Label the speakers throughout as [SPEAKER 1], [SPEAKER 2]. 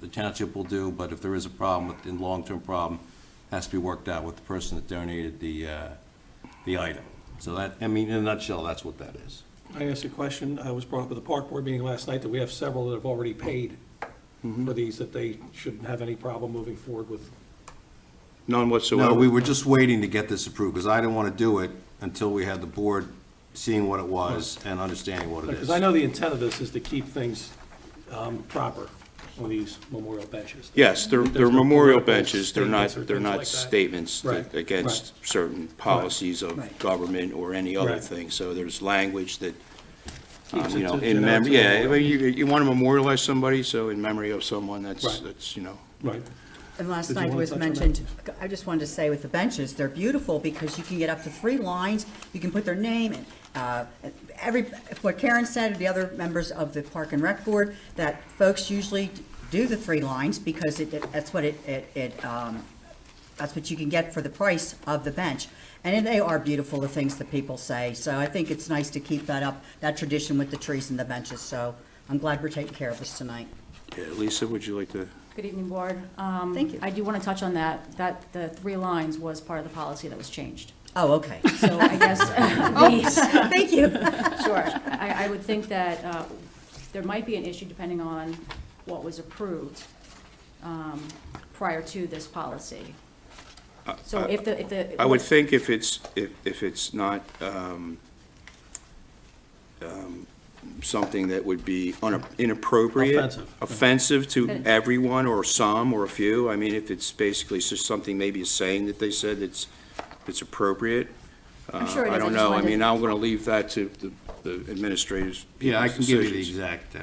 [SPEAKER 1] the township will do, but if there is a problem, with- in long-term problem, has to be worked out with the person that donated the, uh, the item. So that, I mean, in a nutshell, that's what that is.
[SPEAKER 2] I asked a question, I was brought up at the park board meeting last night, that we have several that have already paid
[SPEAKER 3] Mm-hmm.
[SPEAKER 2] for these, that they shouldn't have any problem moving forward with.
[SPEAKER 3] None whatsoever.
[SPEAKER 1] No, we were just waiting to get this approved, because I didn't want to do it until we had the board seeing what it was and understanding what it is.
[SPEAKER 2] Because I know the intent of this is to keep things um, proper on these memorial benches.
[SPEAKER 3] Yes, they're,
[SPEAKER 2] There's
[SPEAKER 3] they're
[SPEAKER 2] no
[SPEAKER 3] memorial
[SPEAKER 2] political
[SPEAKER 3] benches, they're not,
[SPEAKER 2] statements or
[SPEAKER 3] they're
[SPEAKER 2] things
[SPEAKER 3] not
[SPEAKER 2] like that.
[SPEAKER 3] statements that-
[SPEAKER 2] Right,
[SPEAKER 3] against certain policies of
[SPEAKER 2] Right.
[SPEAKER 3] government or any other
[SPEAKER 2] Right.
[SPEAKER 3] thing, so there's language that, um,
[SPEAKER 2] Keeps it
[SPEAKER 3] you know,
[SPEAKER 2] to-
[SPEAKER 3] in
[SPEAKER 2] to-
[SPEAKER 3] memory,
[SPEAKER 2] to-
[SPEAKER 3] yeah, well, you, you want to memorialize somebody, so in memory of someone, that's,
[SPEAKER 2] Right.
[SPEAKER 3] that's, you know,
[SPEAKER 2] Right,
[SPEAKER 4] And last
[SPEAKER 2] Did you
[SPEAKER 4] night it
[SPEAKER 2] wanna
[SPEAKER 4] was
[SPEAKER 2] touch on that?
[SPEAKER 4] mentioned, I just wanted to say with the benches, they're beautiful because you can get up to three lines, you can put their name and, uh, every, what Karen said, the other members of the Park and Rec Board, that folks usually do the three lines because it, it- that's what it, it, it, um, that's what you can get for the price of the bench. And they are beautiful, the things that people say, so I think it's nice to keep that up, that tradition with the trees and the benches, so I'm glad we're taking care of this tonight.
[SPEAKER 3] yeah, Lisa, would you like to?
[SPEAKER 5] Good evening, Board. Um,
[SPEAKER 4] Thank you.
[SPEAKER 5] I do want to touch on that, that the three lines was part of the policy that was changed.
[SPEAKER 4] Oh, okay,
[SPEAKER 5] So I guess, we-
[SPEAKER 4] thank you.
[SPEAKER 5] sure, I, I would think that uh, there might be an issue depending on what was approved um, prior to this policy. So if the, if the.
[SPEAKER 3] Uh, I would think if it's, if, if it's not, um, um, something that would be un- inappropriate.
[SPEAKER 2] Offensive.
[SPEAKER 3] offensive to
[SPEAKER 5] Then-
[SPEAKER 3] everyone or some or a few. I mean, if it's basically just something, maybe a saying that they said that's, that's appropriate. uh,
[SPEAKER 5] I'm sure
[SPEAKER 3] I
[SPEAKER 5] it is, I
[SPEAKER 3] don't
[SPEAKER 5] just
[SPEAKER 3] know. I
[SPEAKER 5] wanted to-
[SPEAKER 3] mean, I'm gonna leave that to the, the administrators.
[SPEAKER 1] Yeah, I can give you the
[SPEAKER 3] decisions.
[SPEAKER 1] exact, uh,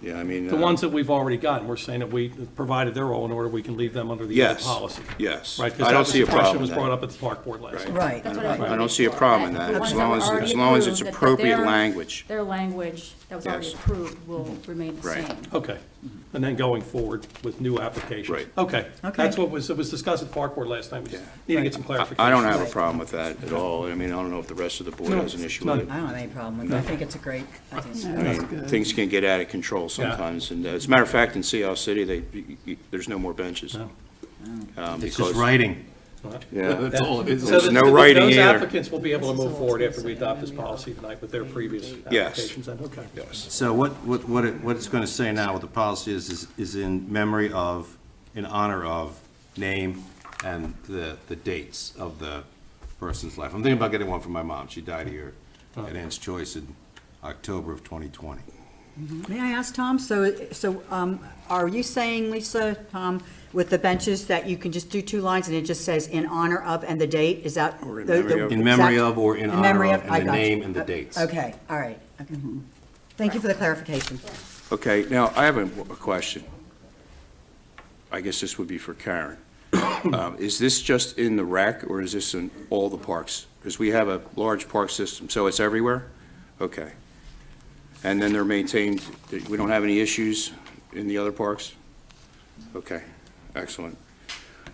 [SPEAKER 3] Yeah, I mean.
[SPEAKER 2] the
[SPEAKER 3] uh,
[SPEAKER 2] ones that we've already gotten, we're saying that we, provided they're all in order, we can leave them under the other
[SPEAKER 3] Yes,
[SPEAKER 2] policy.
[SPEAKER 3] um, yes.
[SPEAKER 2] Right,
[SPEAKER 3] I
[SPEAKER 2] because
[SPEAKER 3] don't
[SPEAKER 2] that was
[SPEAKER 3] see
[SPEAKER 2] the
[SPEAKER 3] a problem
[SPEAKER 2] question
[SPEAKER 3] in
[SPEAKER 2] that was
[SPEAKER 3] that.
[SPEAKER 2] brought up at the park board last night.
[SPEAKER 4] Right.
[SPEAKER 5] That's what I
[SPEAKER 3] I
[SPEAKER 5] was
[SPEAKER 3] don't
[SPEAKER 5] making
[SPEAKER 3] see a
[SPEAKER 5] sure,
[SPEAKER 3] problem in
[SPEAKER 5] the
[SPEAKER 3] that, as
[SPEAKER 5] ones
[SPEAKER 3] long
[SPEAKER 5] were
[SPEAKER 3] as- as
[SPEAKER 5] already
[SPEAKER 3] long as it's
[SPEAKER 5] approved, that
[SPEAKER 3] appropriate
[SPEAKER 5] their-
[SPEAKER 3] language.
[SPEAKER 5] Their language that was already
[SPEAKER 3] Yes.
[SPEAKER 5] approved will remain the
[SPEAKER 3] Right.
[SPEAKER 5] same.
[SPEAKER 2] Okay, and then going forward with new applications.
[SPEAKER 3] Right.
[SPEAKER 2] Okay,
[SPEAKER 4] Okay.
[SPEAKER 2] that's what was, it was discussed at the park board last night, we just
[SPEAKER 3] Yeah.
[SPEAKER 2] need to get some clarification.
[SPEAKER 3] I don't have a problem with that at all. I mean, I don't know if the rest of the board
[SPEAKER 2] No,
[SPEAKER 3] has an issue with it.
[SPEAKER 4] I don't have any problem with it. I think it's a great, I think it's
[SPEAKER 3] I mean, Things can get out of control sometimes. And uh, as a matter of fact, in Seattle City, they, you- you- there's no more benches.
[SPEAKER 2] No.
[SPEAKER 3] um,
[SPEAKER 1] it's just
[SPEAKER 3] because-
[SPEAKER 1] writing.
[SPEAKER 3] Yeah.
[SPEAKER 1] That's all it is.
[SPEAKER 2] So
[SPEAKER 3] There's
[SPEAKER 2] that-
[SPEAKER 3] no
[SPEAKER 2] that
[SPEAKER 3] writing
[SPEAKER 2] Those
[SPEAKER 3] either.
[SPEAKER 2] applicants will be able to move forward after we adopt this policy tonight with their previous
[SPEAKER 3] Yes.
[SPEAKER 2] applications, then, okay.
[SPEAKER 1] So what, what, what it, what it's gonna say now, what the policy is, is, is in memory of, in honor of, name, and the, the dates of the person's life. I'm thinking about getting one for my mom, she died here at Ann's Choice in October of twenty twenty.
[SPEAKER 4] May I ask, Tom, so, so um, are you saying, Lisa, Tom, with the benches that you can just do two lines and it just says in honor of and the date? Is that?
[SPEAKER 3] Or in
[SPEAKER 4] the- the
[SPEAKER 3] memory of.
[SPEAKER 1] In memory
[SPEAKER 4] exact-
[SPEAKER 1] of or in honor
[SPEAKER 4] memory
[SPEAKER 1] of, and
[SPEAKER 4] I
[SPEAKER 1] the
[SPEAKER 4] got you.
[SPEAKER 1] name and the
[SPEAKER 4] Uh,
[SPEAKER 1] dates.
[SPEAKER 4] Okay, all right. okay. Thank you for the clarification.
[SPEAKER 3] Okay, now, I have a a question. I guess this would be for Karen. Um, Is this just in the rec, or is this in all the parks? Because we have a large park system, so it's everywhere? Okay. And then they're maintained, we don't have any issues in the other parks? Okay, excellent.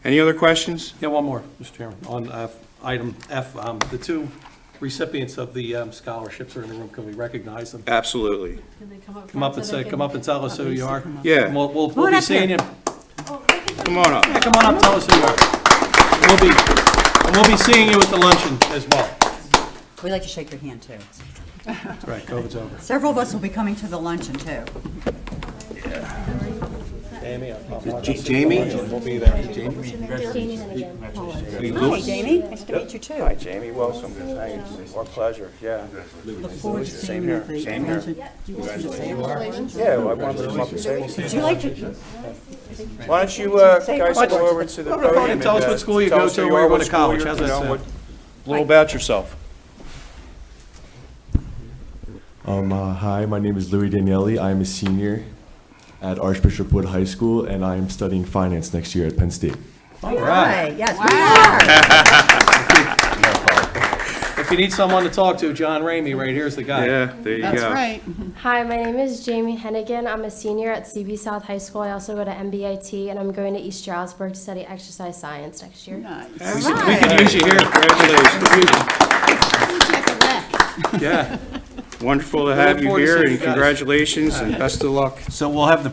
[SPEAKER 3] Any other questions?
[SPEAKER 2] Yeah, one more, Mr. Chairman, on uh, item F, um, the two recipients of the um, scholarships are in the room, can we recognize them?
[SPEAKER 3] Absolutely.
[SPEAKER 6] Can they come up?
[SPEAKER 2] Come up and say, come up and tell us who you are.
[SPEAKER 3] Yeah.
[SPEAKER 2] We'll, we'll we'll
[SPEAKER 4] on
[SPEAKER 2] be
[SPEAKER 4] up here.
[SPEAKER 2] seeing you,
[SPEAKER 3] Come on up.
[SPEAKER 2] yeah, come on up, tell us who you are. We'll be, and we'll be seeing you at the luncheon as well.
[SPEAKER 4] We'd like to shake your hand, too.
[SPEAKER 2] That's right, COVID's over.
[SPEAKER 4] Several of us will be coming to the luncheon, too.
[SPEAKER 2] Jamie, I'll- I'll-
[SPEAKER 1] J- Jamie?
[SPEAKER 2] We'll be there.
[SPEAKER 4] Hi, Jamie, nice to meet you, too. I
[SPEAKER 3] Jamie Wilson, thanks. Our pleasure, yeah.
[SPEAKER 4] look forward to seeing you at the luncheon. You want to say a word?
[SPEAKER 3] Yeah, I wanted to come up and say
[SPEAKER 4] Would you like to,
[SPEAKER 3] Why don't you uh,
[SPEAKER 4] Say
[SPEAKER 3] guys
[SPEAKER 4] what?
[SPEAKER 3] go over to the
[SPEAKER 2] Come on,
[SPEAKER 3] podium?
[SPEAKER 2] tell us
[SPEAKER 3] and, uh,
[SPEAKER 2] what school you
[SPEAKER 3] tell
[SPEAKER 2] go
[SPEAKER 3] us
[SPEAKER 2] to,
[SPEAKER 3] who you
[SPEAKER 2] where you
[SPEAKER 3] are,
[SPEAKER 2] went to
[SPEAKER 3] what school
[SPEAKER 2] college.
[SPEAKER 3] you're-
[SPEAKER 2] How's
[SPEAKER 3] you
[SPEAKER 2] that
[SPEAKER 3] know,
[SPEAKER 2] sound?
[SPEAKER 3] what- A little about yourself.
[SPEAKER 7] Um, uh, hi, my name is Louis Danielli. I am a senior at Archbishop Wood High School, and I am studying finance next year at Penn State.
[SPEAKER 2] All right.
[SPEAKER 4] hi, yes, we are.
[SPEAKER 2] If you need someone to talk to, John Ramey, right here's the guy.
[SPEAKER 3] Yeah, there you go.
[SPEAKER 8] That's right.
[SPEAKER 6] Hi, my name is Jamie Hennigan. I'm a senior at CB South High School. I also go to MBIT, and I'm going to East Stroudsburg to study exercise science next year.
[SPEAKER 8] Nice.
[SPEAKER 2] We could use you here. Congratulations. Yeah.
[SPEAKER 3] Wonderful to
[SPEAKER 2] Look
[SPEAKER 3] have you
[SPEAKER 2] forward to
[SPEAKER 3] here,
[SPEAKER 2] seeing you
[SPEAKER 3] and
[SPEAKER 2] guys.
[SPEAKER 3] congratulations, and best of luck.
[SPEAKER 1] So we'll have the